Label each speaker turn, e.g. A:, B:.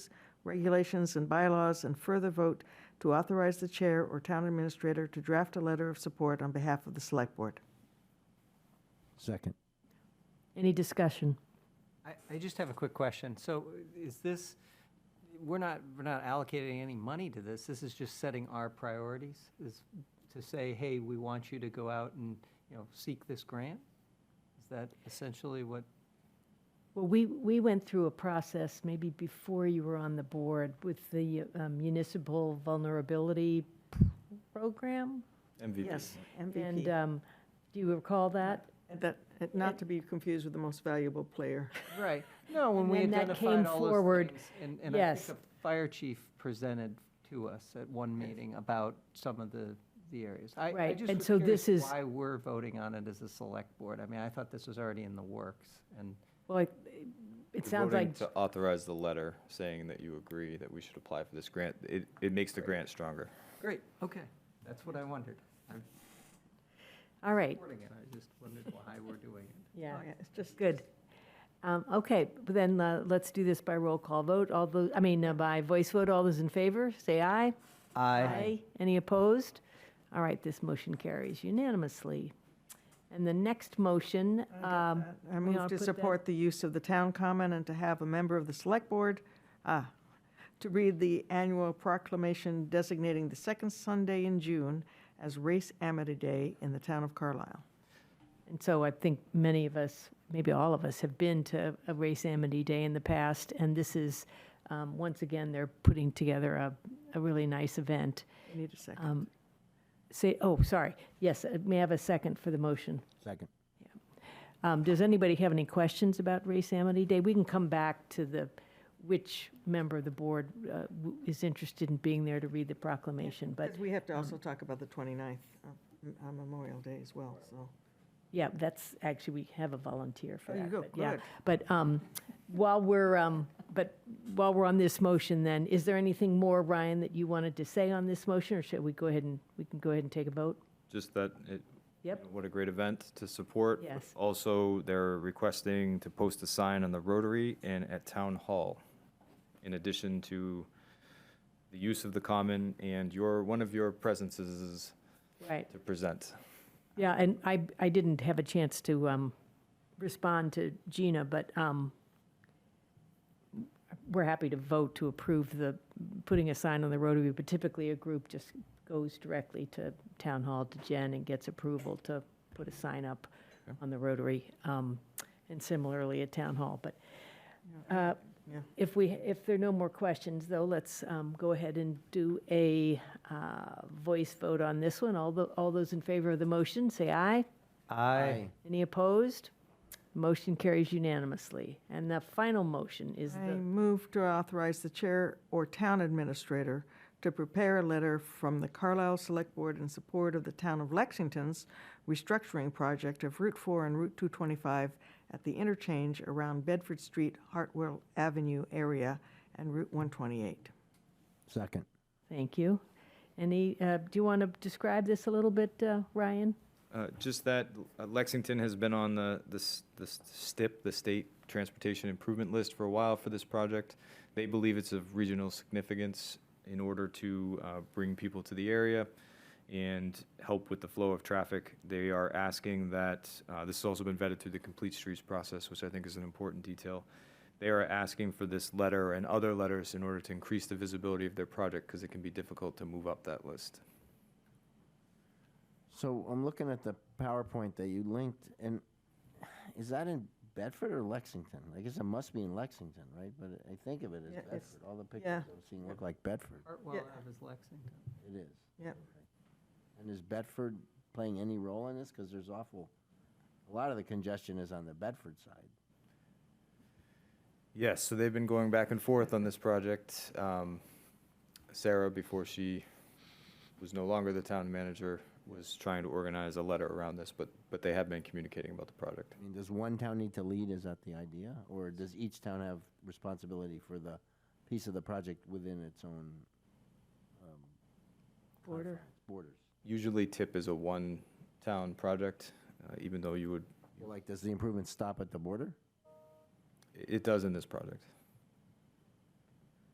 A: regulations and bylaws, and further vote to authorize the chair or town administrator to draft a letter of support on behalf of the select board.
B: Second.
C: Any discussion?
D: I, I just have a quick question. So is this, we're not, we're not allocating any money to this. This is just setting our priorities, is to say, hey, we want you to go out and, you know, seek this grant? Is that essentially what,
C: Well, we, we went through a process, maybe before you were on the board, with the um, municipal vulnerability program.
E: MVP.
A: Yes,
C: And
A: MVP.
C: um, do you recall that?
A: And That, and not to be confused with the most valuable player.
D: right? No, when we
C: when that came
D: identified all those
C: forward,
D: things. And, and I
C: yes.
D: think the fire chief presented to us at one meeting about some of the, the areas. I, I
C: Right,
D: just
C: and
D: was
C: so this
D: curious
C: is-
D: why we're voting on it as a select board. I mean, I thought this was already in the works and.
C: Well, it- it
E: You're
C: sounds
E: voting
C: like,
E: To authorize the letter saying that you agree that we should apply for this grant, it, it makes the grant stronger.
D: Great, okay. That's what I wondered. I'm
C: all right,
D: supporting it, I just wondered why we're doing it.
C: yeah,
A: Oh, yeah, It's just,
C: good. Um, Okay, but then uh, let's do this by roll call vote. All those, I mean, uh, by voice vote, all those in favor, say aye. Any opposed? All right, this motion carries unanimously. And the next motion, um,
A: I
C: we
A: move
C: ought
A: to
C: put that-
A: support the use of the town common and to have a member of the select board, ah, to read the annual proclamation designating the second Sunday in June as Race Amity Day in the town of Carlisle.
C: And so I think many of us, maybe all of us, have been to a Race Amity Day in the past, and this is, um, once again, they're putting together a, a really nice event.
A: I Need a
C: Um,
A: second.
C: Say, oh, sorry, yes, uh, may I have a second for the motion?
B: Second.
C: Um, Does anybody have any questions about Race Amity Day? We can come back to the, which member of the board uh, w- is interested in being there to read the proclamation, but, um,
A: Because we have to also talk about the 29th, uh, on Memorial Day as well, so.
C: yeah, that's, actually, we have a volunteer for
A: There you
C: that.
A: go,
C: but yeah.
A: good.
C: But um, while we're, um, but while we're on this motion then, is there anything more, Ryan, that you wanted to say on this motion, or should we go ahead and, we can go ahead and take a vote?
E: Just that it.
C: Yep.
E: What a great event to support.
C: Yes.
E: Also, they're requesting to post a sign on the Rotary and at Town Hall. In addition to the use of the common and your, one of your presences is
C: Right.
E: to present.
C: Yeah, and I, I didn't have a chance to um, respond to Gina, but um, we're happy to vote to approve the, putting a sign on the Rotary, but typically a group just goes directly to Town Hall to Jen and gets approval to put a sign up on the Rotary, um, and similarly at Town Hall. But uh,
A: Yeah.
C: if we, if there are no more questions, though, let's um, go ahead and do a uh, voice vote on this one. All the, all those in favor of the motion, say aye.
D: Aye.
C: Any opposed? Motion carries unanimously. And the final motion is
A: I
C: the,
A: move to authorize the chair or town administrator to prepare a letter from the Carlisle Select Board in support of the town of Lexington's restructuring project of Route 4 and Route 225 at the interchange around Bedford Street, Hartwell Avenue area, and Route 128.
B: Second.
C: thank you. Any, uh, do you want to describe this a little bit, uh, Ryan?
E: Uh, Just that uh, Lexington has been on the, the s- the s- STIP, the State Transportation Improvement List, for a while for this project. They believe it's of regional significance in order to uh, bring people to the area and help with the flow of traffic. They are asking that, uh, this has also been vetted through the Complete Streets process, which I think is an important detail. They are asking for this letter and other letters in order to increase the visibility of their project because it can be difficult to move up that list.
B: So I'm looking at the PowerPoint that you linked, and is that in Bedford or Lexington? I guess it must be in Lexington, right? But I think of it as
A: Yeah,
B: Bedford.
A: it's-
B: All the pictures
A: yeah.
B: I've seen look like Bedford.
D: Hartwell
A: Yeah.
D: Ave is Lexington.
B: It is.
A: Yep.
B: And is Bedford playing any role in this? Because there's awful, a lot of the congestion is on the Bedford side.
E: Yes, so they've been going back and forth on this project. Um, Sarah, before she was no longer the town manager, was trying to organize a letter around this, but, but they have been communicating about the project.
B: I mean, does one town need to lead? Is that the idea? Or does each town have responsibility for the piece of the project within its own um,
C: Porter?
B: borders?
E: Usually TIP is a one-town project, uh, even though you would,
B: Well, Like, does the improvement stop at the border?
E: it does in this project.